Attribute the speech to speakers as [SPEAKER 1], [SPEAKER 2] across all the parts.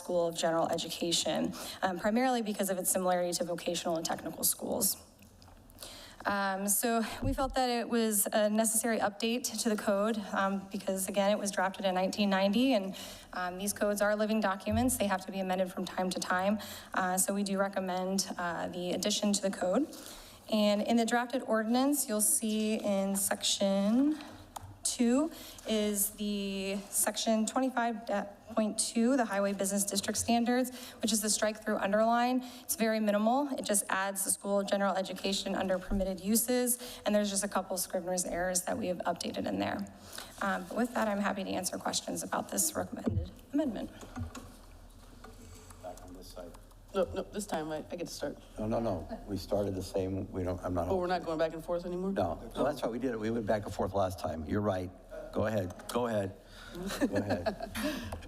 [SPEAKER 1] School of General Education, um, primarily because of its similarity to vocational and technical schools. Um, So we felt that it was a necessary update to the code um, because, again, it was drafted in 1990, and um, these codes are living documents. They have to be amended from time to time. Uh, So we do recommend uh, the addition to the code. And in the drafted ordinance, you'll see in section two is the section 25.2, the Highway Business District Standards, which is the strike-through underline. It's very minimal. It just adds the school of general education under permitted uses, and there's just a couple scrivener's errors that we have updated in there. Um, but With that, I'm happy to answer questions about this recommended amendment.
[SPEAKER 2] back on this side.
[SPEAKER 3] No, no, Oh, this time I, I get to start.
[SPEAKER 2] No, no, no, we started the same, we don't, I'm not.
[SPEAKER 3] Oh, we're not going back and forth anymore?
[SPEAKER 2] No, well, that's right, we did it, we went back and forth last time, you're right, go ahead, go ahead, go ahead.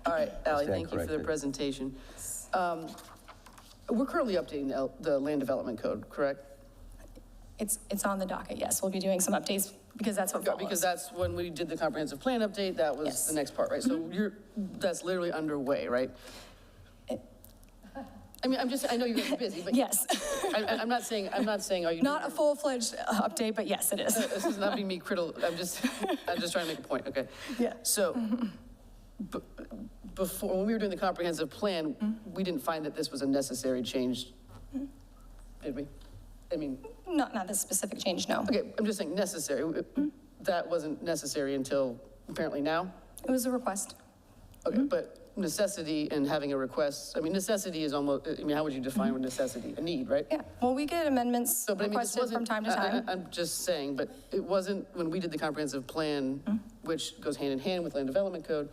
[SPEAKER 3] All right, Ally,
[SPEAKER 2] Stand
[SPEAKER 3] thank you for the
[SPEAKER 2] corrected.
[SPEAKER 3] presentation. Um, We're currently updating the, L- the land development code, correct?
[SPEAKER 1] It's, it's on the docket, yes. We'll be doing some updates because that's what follows.
[SPEAKER 3] Because that's when we did the comprehensive plan update, that was
[SPEAKER 1] Yes. Mm-hmm.
[SPEAKER 3] the next part, right? So you're, that's literally underway, right? I mean, I'm just, I know you guys are busy, but.
[SPEAKER 1] Yes,
[SPEAKER 3] I, I- I'm not saying, I'm not saying, are you?
[SPEAKER 1] not a full-fledged uh, update, but yes, it is.
[SPEAKER 3] This is not being me critical, I'm just, I'm just trying to make a point, okay?
[SPEAKER 1] Yeah.
[SPEAKER 3] So, b- before, when we were doing the comprehensive plan, we didn't find that this was a necessary change, did we? I mean,
[SPEAKER 1] Not, not this specific change, no.
[SPEAKER 3] okay, I'm just saying necessary, that wasn't necessary until apparently now?
[SPEAKER 1] It was a request.
[SPEAKER 3] Okay, but necessity and having a request, I mean, necessity is almost, I mean, how would you define necessity? A need, right?
[SPEAKER 1] Yeah, well, we get amendments
[SPEAKER 3] So, but I mean, this
[SPEAKER 1] requested
[SPEAKER 3] wasn't. uh,
[SPEAKER 1] from time to
[SPEAKER 3] I- I-
[SPEAKER 1] time.
[SPEAKER 3] I'm just saying, but it wasn't, when we did the comprehensive
[SPEAKER 1] Mm-hmm.
[SPEAKER 3] plan, which goes hand in hand with land development code,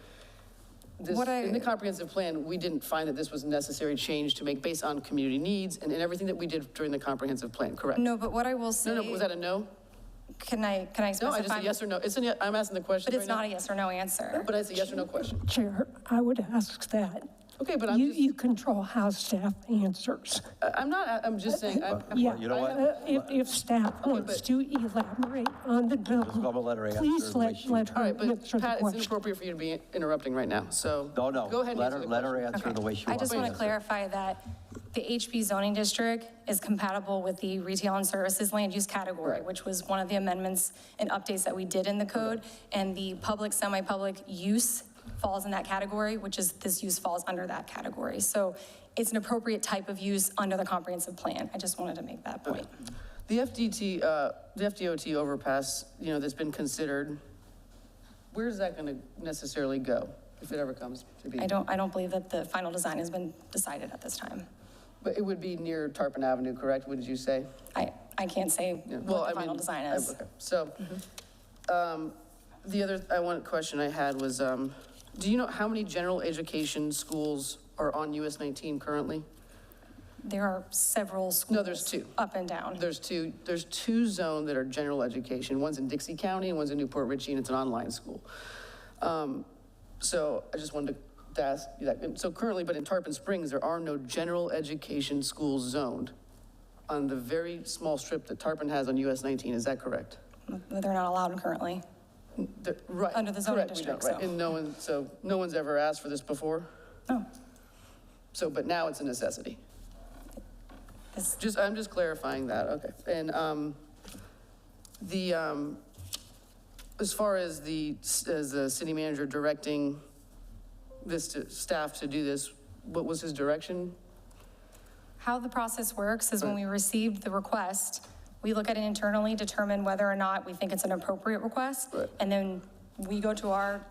[SPEAKER 3] this,
[SPEAKER 1] What I-
[SPEAKER 3] in the comprehensive plan, we didn't find that this was a necessary change to make based on community needs and and everything that we did during the comprehensive plan, correct?
[SPEAKER 1] No, but what I will say,
[SPEAKER 3] uh, No, no, was that a no?
[SPEAKER 1] can I, can I
[SPEAKER 3] No, I just
[SPEAKER 1] specify?
[SPEAKER 3] a yes or no. It's a yes- I'm asking the question
[SPEAKER 1] But it's
[SPEAKER 3] right now.
[SPEAKER 1] not a yes or no answer.
[SPEAKER 3] But it's a yes or no question.
[SPEAKER 4] Chair, I would ask that.
[SPEAKER 3] Okay, but I'm
[SPEAKER 4] You,
[SPEAKER 3] just,
[SPEAKER 4] you control how staff answers.
[SPEAKER 3] I- I'm not, I'm just saying, I'm.
[SPEAKER 4] Yeah,
[SPEAKER 2] you know what?
[SPEAKER 4] uh, If, if staff wants
[SPEAKER 3] but-
[SPEAKER 4] to elaborate on the bill,
[SPEAKER 2] go by letter A, I'm
[SPEAKER 4] please
[SPEAKER 2] sure the way
[SPEAKER 4] let,
[SPEAKER 2] she-
[SPEAKER 4] let
[SPEAKER 3] All
[SPEAKER 4] her
[SPEAKER 3] right, but
[SPEAKER 4] answer the
[SPEAKER 3] Pat, it's
[SPEAKER 4] question.
[SPEAKER 3] inappropriate for you to be interrupting right now, so.
[SPEAKER 2] No, no,
[SPEAKER 3] Go ahead and
[SPEAKER 2] let
[SPEAKER 3] answer
[SPEAKER 2] her,
[SPEAKER 3] the
[SPEAKER 2] let her
[SPEAKER 3] question.
[SPEAKER 2] answer the way she
[SPEAKER 1] I
[SPEAKER 2] wants.
[SPEAKER 1] just
[SPEAKER 2] to
[SPEAKER 1] want to
[SPEAKER 2] answer.
[SPEAKER 1] clarify that the HB zoning district is compatible with the retail and services land use category,
[SPEAKER 3] Right.
[SPEAKER 1] which was one of the amendments and updates that we did in the code. And the public, semi-public use falls in that category, which is, this use falls under that category. So it's an appropriate type of use under the comprehensive plan. I just wanted to make that point.
[SPEAKER 3] The FDT, uh, the FDOT overpass, you know, that's been considered, where's that gonna necessarily go, if it ever comes to be?
[SPEAKER 1] I don't, I don't believe that the final design has been decided at this time.
[SPEAKER 3] But it would be near Tarpon Avenue, correct, would you say?
[SPEAKER 1] I, I can't say
[SPEAKER 3] Yeah, well,
[SPEAKER 1] what
[SPEAKER 3] I
[SPEAKER 1] the final
[SPEAKER 3] mean,
[SPEAKER 1] design
[SPEAKER 3] I-
[SPEAKER 1] is. Mm-hmm.
[SPEAKER 3] okay. So, um, the other, I one question I had was, um, do you know how many general education schools are on US nineteen currently?
[SPEAKER 1] There are several schools.
[SPEAKER 3] No, there's two.
[SPEAKER 1] Up and down.
[SPEAKER 3] There's two, there's two zones that are general education. One's in Dixie County and one's in Newport Ritchie, and it's an online school. Um, So I just wanted to ask you that. So currently, but in Tarpon Springs, there are no general education schools zoned on the very small strip that Tarpon has on US 19, is that correct?
[SPEAKER 1] They're not allowed currently.
[SPEAKER 3] The- Right.
[SPEAKER 1] Under the zoning
[SPEAKER 3] correct, we don't,
[SPEAKER 1] district,
[SPEAKER 3] right.
[SPEAKER 1] so.
[SPEAKER 3] And no one, so no one's ever asked for this before?
[SPEAKER 1] No,
[SPEAKER 3] So, but now it's a necessity?
[SPEAKER 1] this,
[SPEAKER 3] Just, I'm just clarifying that, okay. And um, the, um, as far as the, as the city manager directing this to staff to do this, what was his direction?
[SPEAKER 1] how the process works is when we receive the request, we look at it internally, determine whether or not we think it's an appropriate request.
[SPEAKER 3] Right.
[SPEAKER 1] And then we go to our,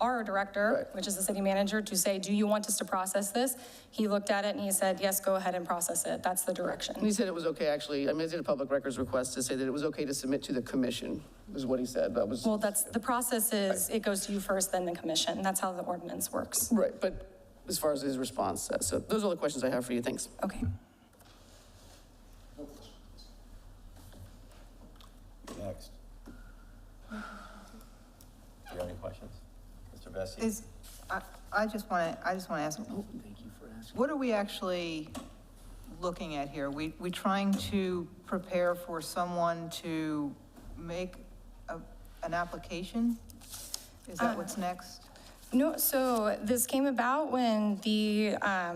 [SPEAKER 1] our director,
[SPEAKER 3] Right.
[SPEAKER 1] which is the city manager, to say, do you want us to process this? He looked at it and he said, yes, go ahead and process it. That's the
[SPEAKER 3] And
[SPEAKER 1] direction.
[SPEAKER 3] he said it was okay, actually, I mean, I did a public records request to say that it was okay to submit to the commission, is what he said, that was,
[SPEAKER 1] Well, that's, the process is, it goes to you first, then the commission. That's how the ordinance works.
[SPEAKER 3] right, but as far as his response, uh, so those are all the questions I have for you, thanks.
[SPEAKER 1] Okay.
[SPEAKER 2] Next. Do you have any questions? Mr. Bessie?
[SPEAKER 5] Is, I, I just want to, I just want to ask. What are we actually looking at here? We, we trying to prepare for someone to make a, an application? Is that what's next?
[SPEAKER 1] No, so this came about when the um,